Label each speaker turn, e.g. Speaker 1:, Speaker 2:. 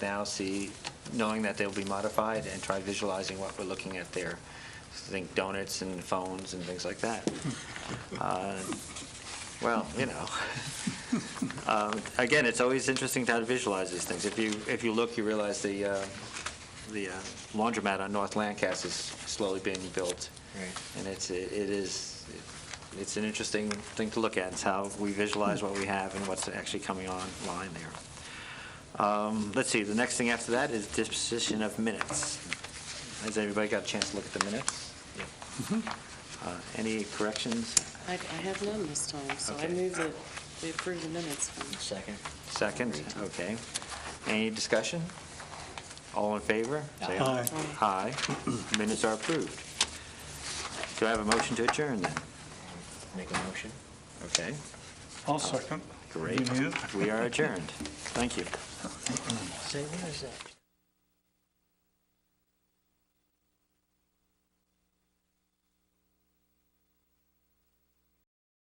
Speaker 1: now see, knowing that they'll be modified and try visualizing what we're looking at there. Think donuts and phones and things like that. Uh, Well, you know. Um, Again, it's always interesting to how to visualize these things. If you, if you look, you realize the, uh, the uh, laundromat on North Lancaster is slowly being built.
Speaker 2: Right.
Speaker 1: And it's, it it is, it's an interesting thing to look at, it's how we visualize what we have and what's actually coming online there. Um, Let's see, the next thing after that is disposition of minutes. Has everybody got a chance to look at the minutes? Uh, Any corrections?
Speaker 3: I, I have none this time, so I
Speaker 1: Okay.
Speaker 3: move that we approve the minutes from
Speaker 2: Second.
Speaker 1: Second, okay. Any discussion? All in favor? Say
Speaker 4: Aye.
Speaker 1: Aye. Minutes are approved. Do I have a motion to adjourn then?
Speaker 2: Make a motion?
Speaker 1: Okay,
Speaker 4: I'll second.
Speaker 1: great.
Speaker 4: You need it?
Speaker 1: We are adjourned. Thank you.
Speaker 2: Say, what is that?